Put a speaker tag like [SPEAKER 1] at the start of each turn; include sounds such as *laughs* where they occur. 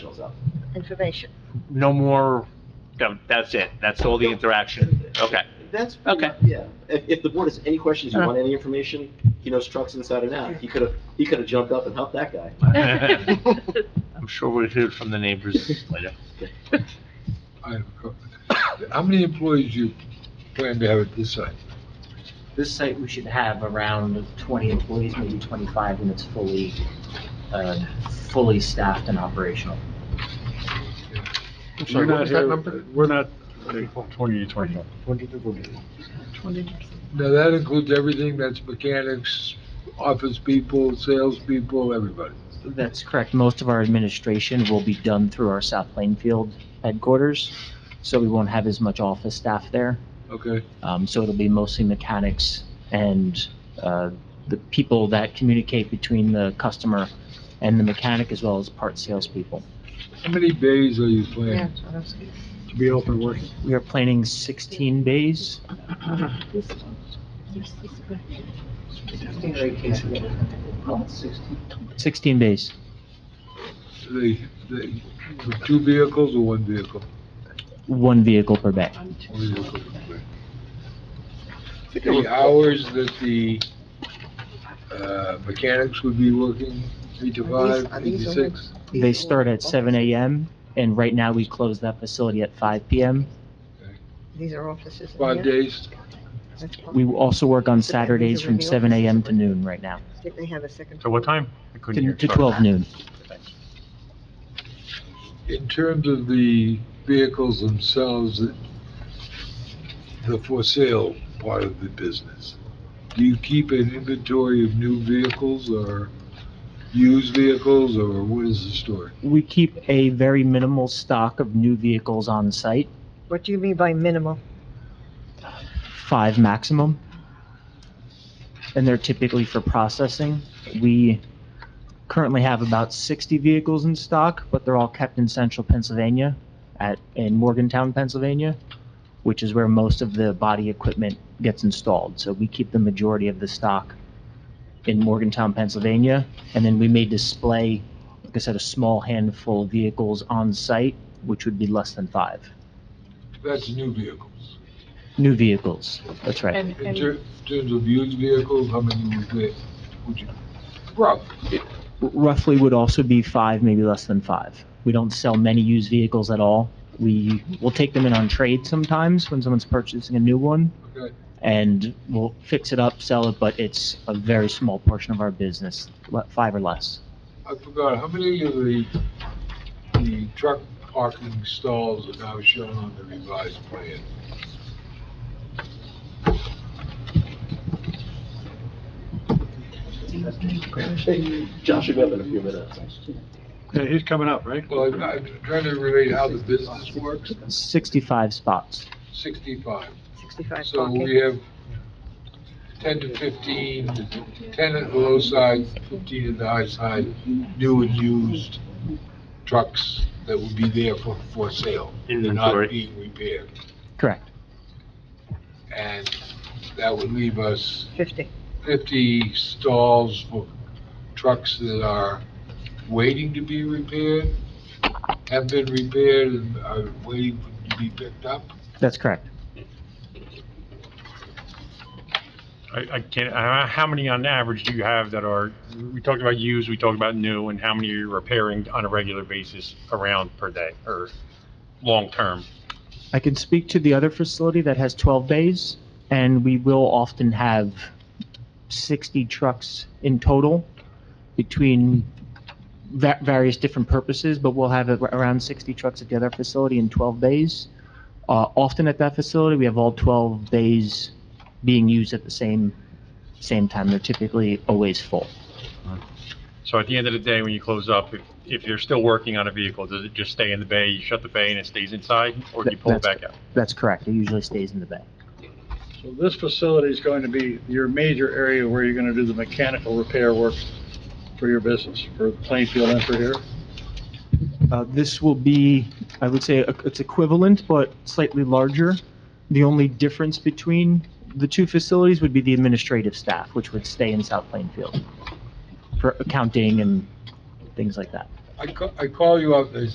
[SPEAKER 1] stuff.
[SPEAKER 2] information.
[SPEAKER 3] No more, no, that's it, that's all the interaction,
[SPEAKER 4] *laughs*
[SPEAKER 3] okay.
[SPEAKER 1] That's, pretty
[SPEAKER 3] Okay.
[SPEAKER 1] much- yeah, if, if the board has any questions, you
[SPEAKER 2] Uh.
[SPEAKER 1] want any information, he knows trucks inside and out. He could have, he could have jumped up and helped that guy.
[SPEAKER 3] I'm sure we'll hear from the neighbors later.
[SPEAKER 5] I have a couple. How many employees you plan to have at this site?
[SPEAKER 4] This site, we should have around 20 employees, maybe 25 when it's fully, uh, fully staffed and operational.
[SPEAKER 5] I'm
[SPEAKER 6] We're
[SPEAKER 5] sorry, what
[SPEAKER 6] not
[SPEAKER 5] was that
[SPEAKER 6] here,
[SPEAKER 5] number?
[SPEAKER 6] we're not, 28, 29. 22.
[SPEAKER 5] Now, that includes everything, that's mechanics, office people, salespeople, everybody.
[SPEAKER 4] That's correct. Most of our administration will be done through our South Plainfield headquarters, so we won't have as much office staff there.
[SPEAKER 5] Okay,
[SPEAKER 4] Um, So it'll be mostly mechanics and uh, the people that communicate between the customer and the mechanic, as well as part salespeople.
[SPEAKER 5] how many bays are you planning?
[SPEAKER 6] To be open working.
[SPEAKER 4] We are planning 16 bays. Sixteen days.
[SPEAKER 5] They, they, with two vehicles or one vehicle?
[SPEAKER 4] One vehicle per bay.
[SPEAKER 5] One vehicle per bay. The hours that the, uh, mechanics would be working, eight to
[SPEAKER 7] Are these-
[SPEAKER 5] five,
[SPEAKER 7] are
[SPEAKER 5] eight
[SPEAKER 7] these
[SPEAKER 5] to
[SPEAKER 7] all-
[SPEAKER 5] six?
[SPEAKER 4] They start at seven AM, and right now we close that facility at five PM.
[SPEAKER 7] These are offices. in
[SPEAKER 5] Five
[SPEAKER 7] here.
[SPEAKER 5] days?
[SPEAKER 7] That's fine.
[SPEAKER 4] We will also work on Saturdays from seven AM to noon right now,
[SPEAKER 7] Did they have a second?
[SPEAKER 6] So what time? I couldn't
[SPEAKER 4] to
[SPEAKER 6] hear,
[SPEAKER 4] to
[SPEAKER 6] sorry.
[SPEAKER 4] twelve noon.
[SPEAKER 5] In terms of the vehicles themselves, the for sale part of the business, do you keep an inventory of new vehicles or used vehicles, or what is the story?
[SPEAKER 4] We keep a very minimal stock of new vehicles on site,
[SPEAKER 7] What do you mean by minimal?
[SPEAKER 4] five maximum. And they're typically for processing. We currently have about sixty vehicles in stock, but they're all kept in central Pennsylvania at, in Morgantown, Pennsylvania, which is where most of the body equipment gets installed. So we keep the majority of the stock in Morgantown, Pennsylvania. And then we may display, like I said, a small handful of vehicles on site, which would be less than five.
[SPEAKER 5] That's new vehicles.
[SPEAKER 4] New vehicles, that's right.
[SPEAKER 8] And,
[SPEAKER 5] In
[SPEAKER 8] and
[SPEAKER 5] ter- in terms of used vehicles, how many would they, would you, rough?
[SPEAKER 4] roughly would also be five, maybe less than five. We don't sell many used vehicles at all. We will take them in on trade sometimes when someone's purchasing a new one,
[SPEAKER 5] Okay,
[SPEAKER 4] and we'll fix it up, sell it, but it's a very small portion of our business, le- five or less.
[SPEAKER 5] I forgot, how many of the, the truck parking stalls are now shown on the revised plan?
[SPEAKER 1] Josh will be up in a few minutes.
[SPEAKER 6] Yeah, he's coming up, right?
[SPEAKER 5] Well, I'm- I'm trying to relate how the business works,
[SPEAKER 4] Sixty-five spots.
[SPEAKER 5] 65.
[SPEAKER 7] 65
[SPEAKER 5] So we
[SPEAKER 7] parking?
[SPEAKER 5] have 10 to 15, 10 at the low side, 15 at the high side, new and used trucks that would be there for, for sale. They're
[SPEAKER 3] Inventory.
[SPEAKER 5] not being repaired.
[SPEAKER 4] Correct.
[SPEAKER 5] And that would leave us
[SPEAKER 7] 50.
[SPEAKER 5] 50 stalls for trucks that are waiting to be repaired, have been repaired and are waiting for- to be picked up.
[SPEAKER 4] That's correct.
[SPEAKER 6] I, I can't, uh, how many on average do you have that are, we talked about used, we talked about new, and how many are you repairing on a regular basis around per day or long-term?
[SPEAKER 4] I can speak to the other facility that has 12 bays, and we will often have 60 trucks in total between va- various different purposes, but we'll have a- around 60 trucks at the other facility in 12 bays. Uh, Often at that facility, we have all 12 bays being used at the same, same time. They're typically always full.
[SPEAKER 6] So at the end of the day, when you close up, if, if you're still working on a vehicle, does it just stay in the bay, you shut the bay and it stays inside, or do you pull it
[SPEAKER 4] That's-
[SPEAKER 6] back out?
[SPEAKER 4] That's correct. It usually stays in the bay.
[SPEAKER 6] So
[SPEAKER 9] This facility is going to be your major area where you're going to do the mechanical repair work for your business, for Plainfield and for here.
[SPEAKER 4] Uh, This will be, I would say, uh, it's equivalent, but slightly larger. The only difference between the two facilities would be the administrative staff, which would stay in South Plainfield for accounting and things like that.
[SPEAKER 5] I ca- I call you up, they